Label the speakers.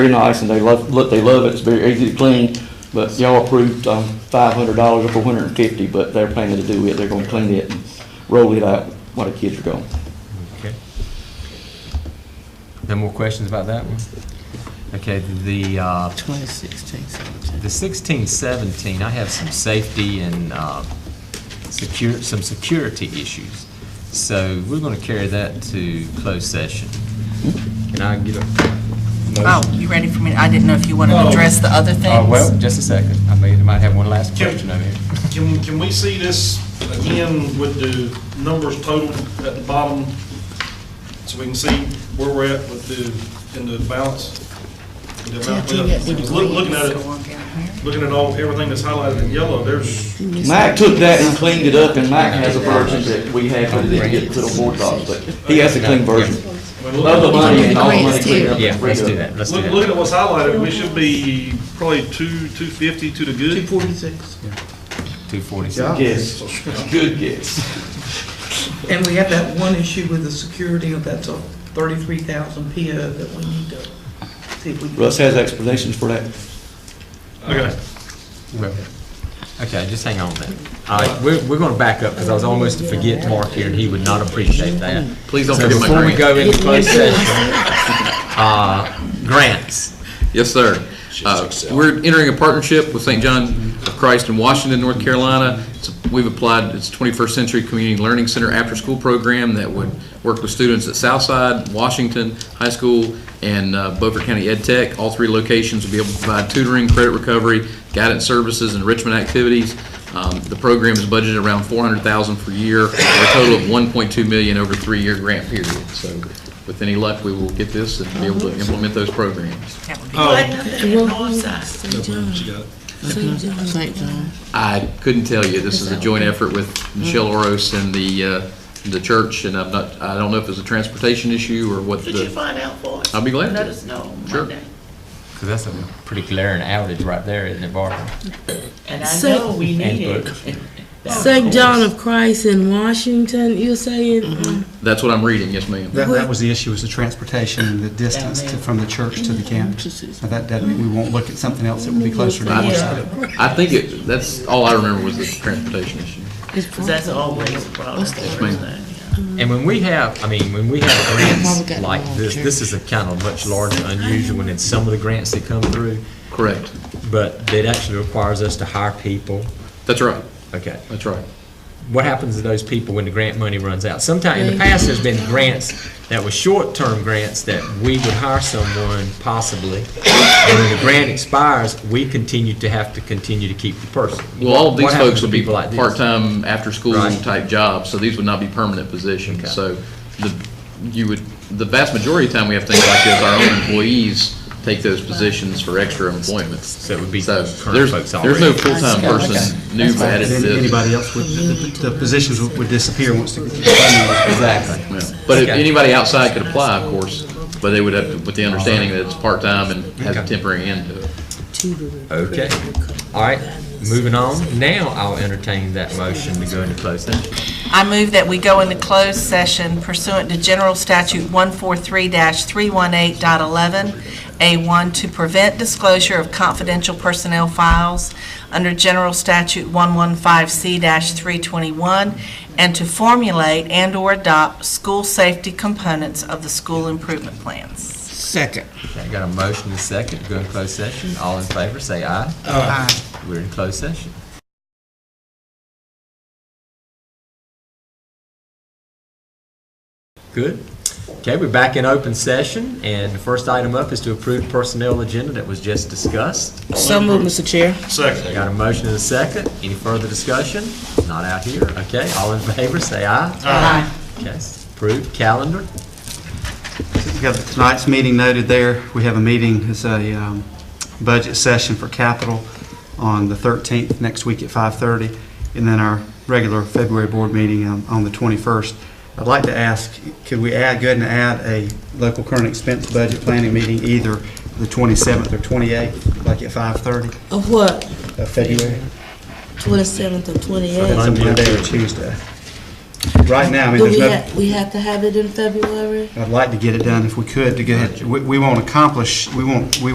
Speaker 1: very nice, and they love, look, they love it, it's very easy to clean, but y'all approved, um, five hundred dollars or four hundred and fifty, but they're planning to do it, they're gonna clean it and roll it out while the kids are gone.
Speaker 2: Okay. No more questions about that one? Okay, the, uh,
Speaker 3: 2016, 17.
Speaker 2: the sixteen seventeen, I have some safety and, uh, secure, some security issues. So we're gonna carry that to closed session. Can I get a?
Speaker 3: Oh, you ready for me? I didn't know if you wanted to
Speaker 4: Oh.
Speaker 3: address the other things.
Speaker 2: Uh, well, just a second. I may, I might have one last
Speaker 4: Jim.
Speaker 2: question over here.
Speaker 4: Can, can we see this again with the numbers total at the bottom? So we can see where we're at with the, in the balance? The amount left. Look- Looking at it, looking at all, everything that's highlighted in yellow, there's,
Speaker 1: Mike took that and cleaned it up, and Mike has a version that we had, but it didn't get to the board docs, but he has a clean version.
Speaker 4: I mean,
Speaker 1: Of the
Speaker 4: look-
Speaker 1: money and all the money cleaned up.
Speaker 2: Yeah, let's do that, let's do
Speaker 4: look- looking
Speaker 2: that.
Speaker 4: at what's highlighted, we should be probably two, two fifty to the good.
Speaker 3: 246.
Speaker 2: Two forty-six.
Speaker 1: Yes, good guess.
Speaker 5: And we have that one issue with the security, uh, that's a 33,000 PO that we need to see if we can...
Speaker 1: Russ has explanations for that.
Speaker 4: Okay.
Speaker 2: Okay, just hang on then. All right, we're, we're gonna back up, because I was almost to forget Mark here, and he would not appreciate that.
Speaker 6: Please don't
Speaker 2: So
Speaker 6: forget my
Speaker 2: before we
Speaker 6: grant.
Speaker 2: go into closed session, uh, grants.
Speaker 6: Yes, sir. Uh, We're entering a partnership with St. John of Christ in Washington, North Carolina. It's- We've applied, it's 21st Century Community Learning Center after-school program that would work with students at Southside, Washington High School, and uh, Beaufort County Ed Tech. All three locations will be able to provide tutoring, credit recovery, guidance services, enrichment activities. Um, The program is budgeted around $400,000 per year, or a total of $1.2 million over a three-year grant period. So with any luck, we will get this and be able to implement those programs.
Speaker 3: That would be
Speaker 5: St. John.
Speaker 6: I couldn't tell you. This is a joint effort with Michelle Oros and the, uh, the church, and I'm not, I don't know if it's a transportation issue or what
Speaker 7: Could you
Speaker 6: the,
Speaker 7: find out for us?
Speaker 6: I'll be glad
Speaker 7: Let
Speaker 6: to.
Speaker 7: us know on
Speaker 6: Sure.
Speaker 7: Monday.
Speaker 2: Because that's a pretty glaring outage right there, isn't it, Barbara?
Speaker 6: Mm-hmm.
Speaker 7: And I
Speaker 8: So-
Speaker 7: know we need
Speaker 2: And
Speaker 7: it.
Speaker 8: St. John of Christ in Washington, you're saying?
Speaker 2: Mm-hmm.
Speaker 8: Um,
Speaker 6: that's what I'm reading, yes, ma'am.
Speaker 9: That, that was the issue, was the transportation and the distance to- from the church to the campus. Now, that, that, we won't look at something else that would be closer to us.
Speaker 6: I think it, that's, all I remember was the transportation issue.
Speaker 7: 'Cause that's always a problem. First thing, yeah.
Speaker 2: And when we have, I mean, when we have grants
Speaker 3: got
Speaker 2: like
Speaker 3: more
Speaker 2: this, this is a kind of much larger, unusual, and it's some of the grants that come through,
Speaker 6: Correct.
Speaker 2: but it actually requires us to hire people.
Speaker 6: That's right.
Speaker 2: Okay.
Speaker 6: That's right.
Speaker 2: What happens to those people when the grant money runs out? Sometimes, in the past, there's been grants that were short-term grants that we would hire someone possibly, and when the grant expires, we continue to have to continue to keep the person.
Speaker 6: Well, all of these
Speaker 2: What happens
Speaker 6: folks
Speaker 2: to
Speaker 6: would be
Speaker 2: people like this?
Speaker 6: part-time, after-school
Speaker 2: Right.
Speaker 6: type jobs, so these would not be permanent
Speaker 2: Okay.
Speaker 6: positions. So the, you would, the vast majority of the time we have things like this, our own employees take those positions for extra employment.
Speaker 2: So it would be
Speaker 6: So
Speaker 2: current
Speaker 6: there's,
Speaker 2: folks
Speaker 6: there's no
Speaker 2: already.
Speaker 6: full-time person new added to
Speaker 9: Then
Speaker 6: this.
Speaker 9: anybody else would, the the positions would would disappear once the. Exactly.
Speaker 6: Yeah. But if
Speaker 2: Okay.
Speaker 6: anybody outside could apply, of course, but they would have, to- with the understanding that it's part-time and has a
Speaker 2: Okay.
Speaker 6: temporary end to it.
Speaker 2: Okay. All right, moving on. Now I'll entertain that motion to go into closed session.
Speaker 3: I move that we go into closed session pursuant to General Statute 143-318.11A1 to prevent disclosure of confidential personnel files under General Statute 115C-321 and to formulate and/or adopt school safety components of the school improvement plans.
Speaker 5: Second.
Speaker 2: Okay, got a motion and a second to go in closed session. All in favor, say aye. Aye. We're in closed session. Good. Okay, we're back in open session, and the first item up is to approve personnel agenda that was just discussed.
Speaker 8: So moved, Mr. Chair.
Speaker 4: Second.
Speaker 2: Got a motion and a second. Any further discussion? Not out here. Okay, all in favor, say aye. Aye. Okay, approved. Calendar?
Speaker 9: We have tonight's meeting noted there. We have a meeting, it's a um, budget session for capital on the 13th, next week at 5:30, and then our regular February board meeting um, on the 21st. I'd like to ask, could we add, go ahead and add a local current expense budget planning meeting either the 27th or 28th, like at 5:30
Speaker 8: Of what?
Speaker 9: of February?
Speaker 8: Twenty-seventh or
Speaker 9: That's
Speaker 8: twenty-eighth?
Speaker 9: a Monday or Tuesday. Right now, I mean,
Speaker 8: Do
Speaker 9: there's
Speaker 8: we
Speaker 9: no...
Speaker 8: have, we have to have it in February?
Speaker 9: I'd like to get it done if we could, to go ahead, we, we won't accomplish, we won't, we